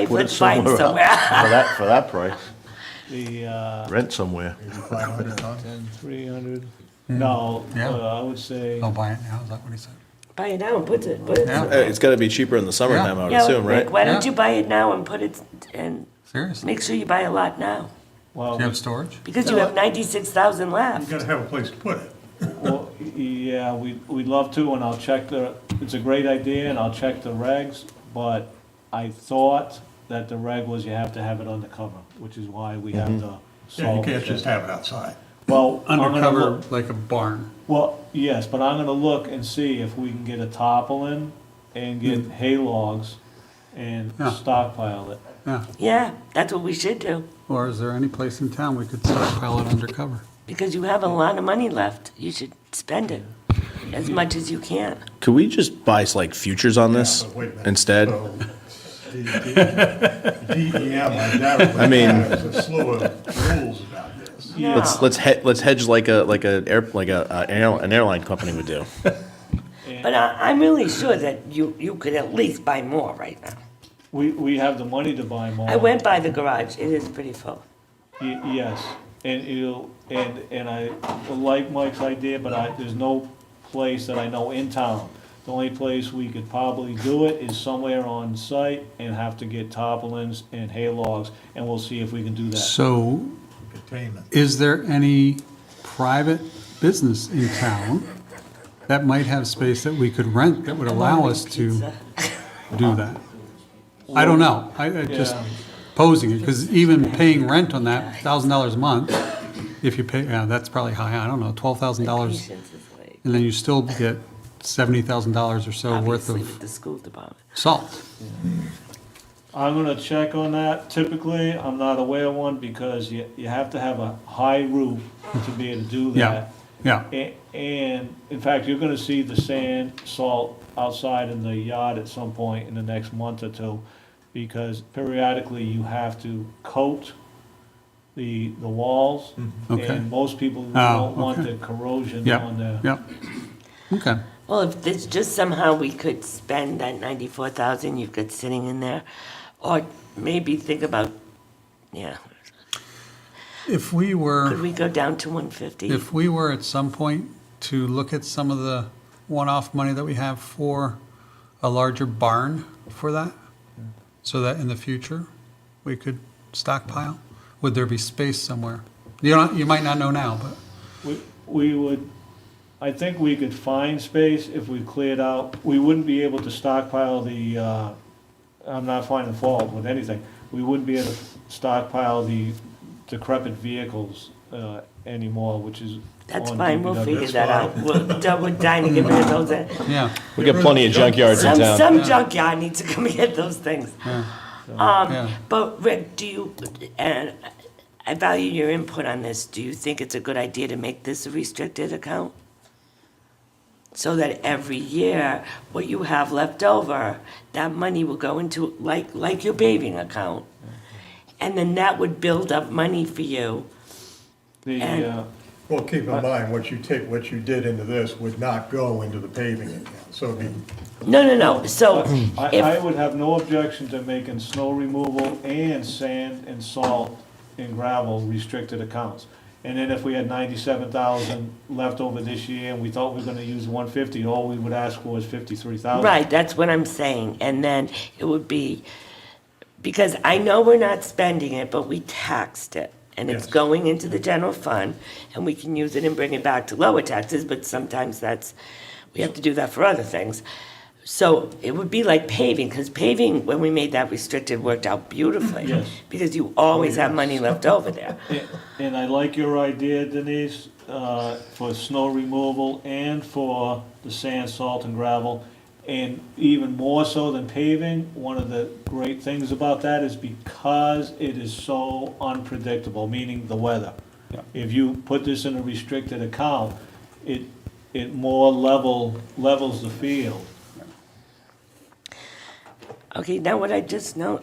Put Put it mine somewhere somewhere. For that, for that price, The, uh, rent somewhere. Five hundred on, three hundred, no, Mm. Yeah. Oh. uh, I would say, they'll buy it now, is that what he said? Buy it now and put it, put it. Yeah. Uh, It's gotta be cheaper in the summertime, I would assume, like, right? Why don't Yeah. you buy it now and put it, and Seriously? make sure you buy a lot now? well, Do you have storage? Because you have ninety-six thousand You left. gotta have a place to put it. well, yeah, we, we'd love to, and I'll check the, it's a great idea, and I'll check the regs, but I thought that the reg was you have to have it undercover, which is why we Mm-hmm. have to Yeah, you solve. can't this. just have it outside. Well, I'm gonna Undercover, look- like a barn. Well, yes, but I'm gonna look and see if we can get a tarpaulin and get hay logs and Mm. Yeah. stockpile it. Yeah. Yeah, that's what we should do, Or is there any place in town we could stockpile it undercover? because you have a lot of money left. You should spend it as much as you can. Could we just buy like futures on this But wait a minute. instead? So, the- the- DEM identified mean- there's a slew of rules about this. Let's, let's he, let's hedge like a, like a air, like a, uh, air- an airline company would do. But I, I'm really sure that you, you could at least buy more right now. We, we have the money to buy more. I went by the garage, it is pretty full. Y- Yes, and it'll, and, and I like Mike's idea, but I, there's no place that I know in town. The only place we could probably do it is somewhere on site and have to get tarpaulins and hay logs, and we'll see if we can do that. So Containment. is there any private business in town that might have space that we could rent that would allow us to do that? I don't know. I, I just Yeah. posing it, because even paying rent on that thousand dollars a month, if you pay, yeah, that's probably high, I don't know, twelve thousand dollars. Patience is like, And then you still get seventy thousand dollars or so worth obviously of with the school department. salt. I'm gonna check on that. Typically, I'm not aware of one because you, you have to have a high roof to be able to do Yeah, that. yeah. A- And, in fact, you're gonna see the sand, salt outside in the yard at some point in the next month or two, because periodically you have to coat the, the walls. Okay. And most people Mm-hmm. Oh, don't want okay. the corrosion on Yeah, there. yeah. Okay, Well, if there's just somehow we could spend that ninety-four thousand you've got sitting in there, or maybe think about, yeah, if we were. could we go down to one fifty? If we were at some point to look at some of the one-off money that we have for a larger barn for that, so that in the future, we could stockpile, would there be space somewhere? You don't, you might not know now, but, We, we would, I think we could find space if we cleared out, we wouldn't be able to stockpile the, uh, I'm not finding fault with anything. We wouldn't be able to stockpile the decrepit vehicles, uh, anymore, which is. That's on fine, we'll DPW. figure that out. We'll, we're dying to get rid of those. uh, yeah, We got plenty of junkyards in Some, town. some junkyard needs to come get those things. Um, yeah. but Rick, do you, and I value your input on this, do you think it's a good idea to make this a restricted account? So that every year, what you have left over, that money will go into, like, like your paving account. And then that would build up money for you. The, And- uh, Well, keep in mind, what you take, what you did into this would not go into the paving account, so it'd be No, no, no, so I, I if, would have no objection to making snow removal and sand and salt and gravel restricted accounts. And then if we had ninety-seven thousand left over this year and we thought we were gonna use one fifty, all we would ask for is fifty-three thousand. right, that's what I'm saying, and then it would be, because I know we're not spending it, but we taxed it. And it's Yes. going into the general fund, and we can use it and bring it back to lower taxes, but sometimes that's, we have to do that for other things. So it would be like paving, because paving, when we made that restricted, worked out beautifully. Yes. Because you always have money left over there. And- And I like your idea, Denise, uh, for snow removal and for the sand, salt, and gravel. And even more so than paving, one of the great things about that is because it is so unpredictable, meaning the weather. If you put this in a restricted account, it, it more level, levels the field. Okay, now what I just know,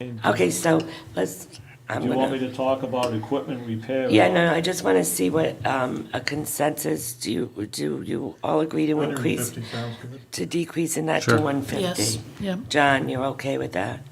And do- okay, so let's, I'm Do gonna. you want me to talk about equipment repair? Yeah, no, no, I just want to see what um, a consensus, do you, do you all agree to increase, 150 sounds good. to decrease in that to Sure. 150? Yes, yeah. John, you're okay with that?